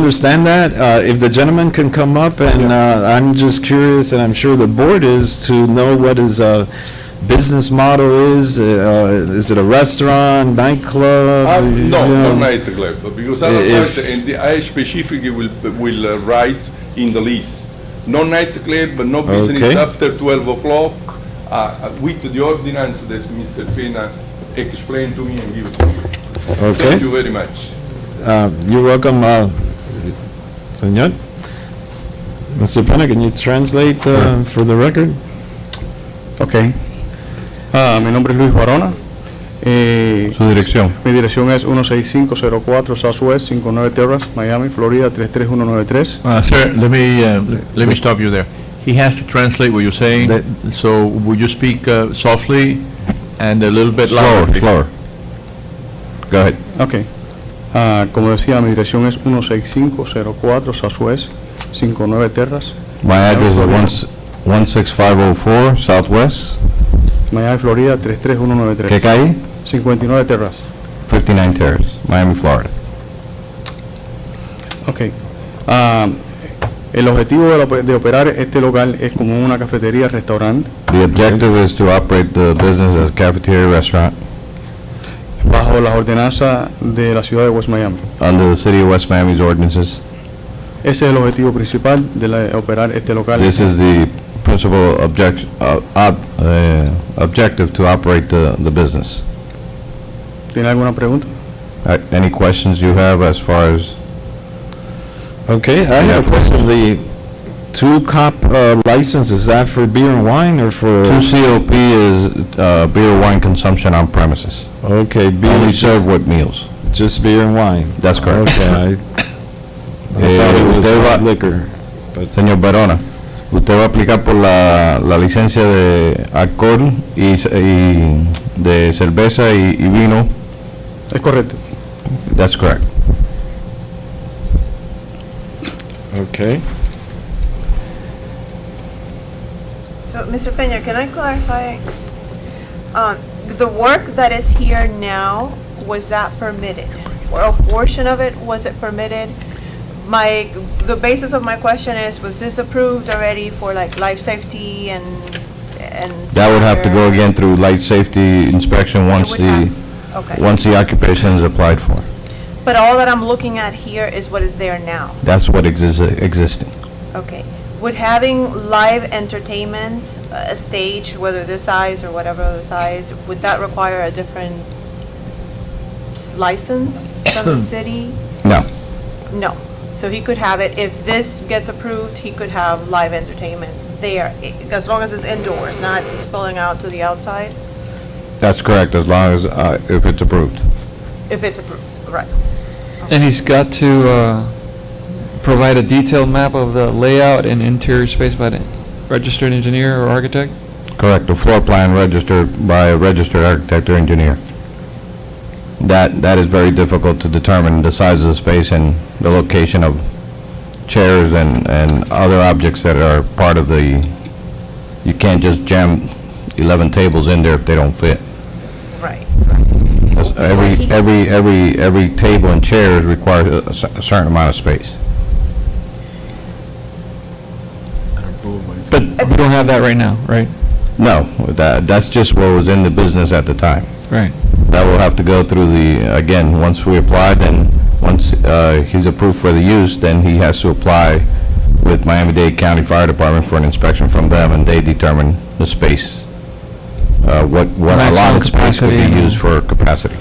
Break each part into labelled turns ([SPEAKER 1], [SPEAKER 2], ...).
[SPEAKER 1] understand that. Uh, If the gentleman can come up, and uh, I'm just curious, and I'm sure the board is, to know what his uh, business model is. Uh, Is it a restaurant, nightclub?
[SPEAKER 2] Uh,
[SPEAKER 1] You
[SPEAKER 2] No,
[SPEAKER 1] know,
[SPEAKER 2] not nightclub, but because otherwise,
[SPEAKER 1] If-
[SPEAKER 2] and the- I specifically will, will uh, write in the lease, no nightclub, but no business
[SPEAKER 1] Okay.
[SPEAKER 2] after twelve o'clock, uh, with the ordinance that Mr. Pena explained to me and give to you.
[SPEAKER 1] Okay.
[SPEAKER 2] Thank you very much.
[SPEAKER 1] Uh, You're welcome, uh, Senor. Mr. Pena, can you translate uh, for the record?
[SPEAKER 3] Ok. Ah, mi nombre es Luis Barona. Eh,
[SPEAKER 4] Su dirección.
[SPEAKER 3] Mi dirección es 16504 Southwest 59 Terrace, Miami, Florida 33193.
[SPEAKER 4] Uh, sir, let me, uh, let me stop you there. He has to translate what you're saying,
[SPEAKER 1] That-
[SPEAKER 4] so would you speak uh, softly and a little bit louder?
[SPEAKER 5] Slower, slower. Go ahead.
[SPEAKER 3] Ok. Ah, como decía, mi dirección es 16504 Southwest 59 Terrace,
[SPEAKER 5] My address is 16504 Southwest,
[SPEAKER 3] Miami, Florida 33193.
[SPEAKER 5] ¿qué calle?
[SPEAKER 3] 59 Terrace.
[SPEAKER 5] 59 Terrace, Miami, Florida.
[SPEAKER 3] Ok. Ah, el objetivo de, la ope- de operar este local es como una cafetería, restaurante,
[SPEAKER 5] The objective is to operate the business as cafeteria restaurant
[SPEAKER 3] bajo las ordenanzas de la ciudad de West Miami.
[SPEAKER 5] under the City of West Miami's ordinances.
[SPEAKER 3] Ese es el objetivo principal de la- operar este local.
[SPEAKER 5] This is the principal object, uh, ob- uh, objective to operate the, the business.
[SPEAKER 3] ¿Tiene alguna pregunta?
[SPEAKER 5] Uh, Any questions you have as far as,
[SPEAKER 1] Okay, I have a
[SPEAKER 5] Yeah.
[SPEAKER 1] question. The two-cup license, is that for beer and wine or for?
[SPEAKER 5] 2COP is uh, beer, wine consumption on premises.
[SPEAKER 1] Okay, beer,
[SPEAKER 5] Only served with meals.
[SPEAKER 1] just beer and wine.
[SPEAKER 5] That's correct.
[SPEAKER 1] Okay, I I thought it
[SPEAKER 5] Eh,
[SPEAKER 1] was
[SPEAKER 5] usted va-
[SPEAKER 1] hard liquor.
[SPEAKER 5] Señor Verona, usted va a aplicar por la, la licencia de alcohol y, ce- y de cerveza y, y vino.
[SPEAKER 3] Es correcto.
[SPEAKER 5] That's correct.
[SPEAKER 1] Okay.
[SPEAKER 6] So, Mr. Peña, can I clarify? Um, The work that is here now, was that permitted? Or a portion of it, was it permitted? My, the basis of my question is, was this approved already for like life safety and, and?
[SPEAKER 5] That would have to go
[SPEAKER 6] fire?
[SPEAKER 5] again through light safety inspection
[SPEAKER 6] It
[SPEAKER 5] once
[SPEAKER 6] would
[SPEAKER 5] the,
[SPEAKER 6] have- Okay,
[SPEAKER 5] once the occupation is applied for.
[SPEAKER 6] but all that I'm looking at here is what is there now,
[SPEAKER 5] That's what exists, existing.
[SPEAKER 6] okay? Would having live entertainment, uh, a stage, whether this size or whatever other size, would that require a different s- license from the city?
[SPEAKER 5] No,
[SPEAKER 6] No. So he could have it, if this gets approved, he could have live entertainment there, i- as long as it's indoors, not spilling out to the outside,
[SPEAKER 5] that's correct, as long as, uh, if it's approved.
[SPEAKER 6] if it's approved, right?
[SPEAKER 7] And he's got to uh, provide a detailed map of the layout and interior space by the registered engineer or architect?
[SPEAKER 5] Correct, the floor plan registered by a registered architect or engineer. That, that is very difficult to determine, the size of the space and the location of chairs and, and other objects that are part of the, you can't just jam 11 tables in there if they don't fit.
[SPEAKER 6] Right.
[SPEAKER 5] Every, every, every, every table and chair requires a a cer- a certain amount of space.
[SPEAKER 7] But we don't have that right now, right?
[SPEAKER 5] No, that, that's just what was in the business at the time.
[SPEAKER 7] Right.
[SPEAKER 5] That will have to go through the, again, once we apply, then, once uh, he's approved for the use, then he has to apply with Miami-Dade County Fire Department for an inspection from them, and they determine the space, uh, what, what
[SPEAKER 7] Maximum
[SPEAKER 5] allotted space could
[SPEAKER 7] capacity
[SPEAKER 5] be
[SPEAKER 7] and-
[SPEAKER 5] used for capacity.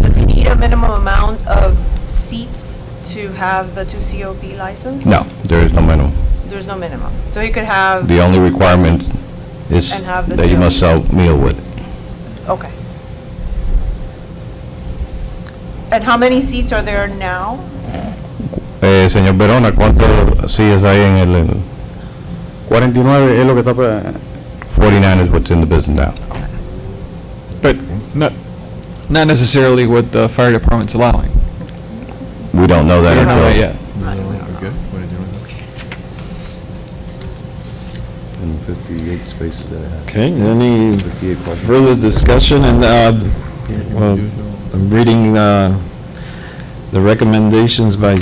[SPEAKER 6] Does he need a minimum amount of seats to have the two COP license?
[SPEAKER 5] No, there is no minimum.
[SPEAKER 6] There's no minimum. So he could have.
[SPEAKER 5] The only requirement
[SPEAKER 6] seats.
[SPEAKER 5] It's
[SPEAKER 6] And have the
[SPEAKER 5] that you must sell meal with.
[SPEAKER 6] Okay. And how many seats are there now?
[SPEAKER 5] Eh, Señor Verona, ¿cuántos sillas hay en el, en-
[SPEAKER 3] 49 es lo que está... pues, pa-
[SPEAKER 5] 49 is what's in the business now?
[SPEAKER 7] But not, not necessarily what the fire department's allowing.
[SPEAKER 5] We don't know
[SPEAKER 7] We
[SPEAKER 5] that
[SPEAKER 7] don't know that
[SPEAKER 5] until...
[SPEAKER 7] yet.
[SPEAKER 5] And 58 spaces that I have.
[SPEAKER 1] Okay, any further discussion? And uh, well, I'm reading uh, the recommendations by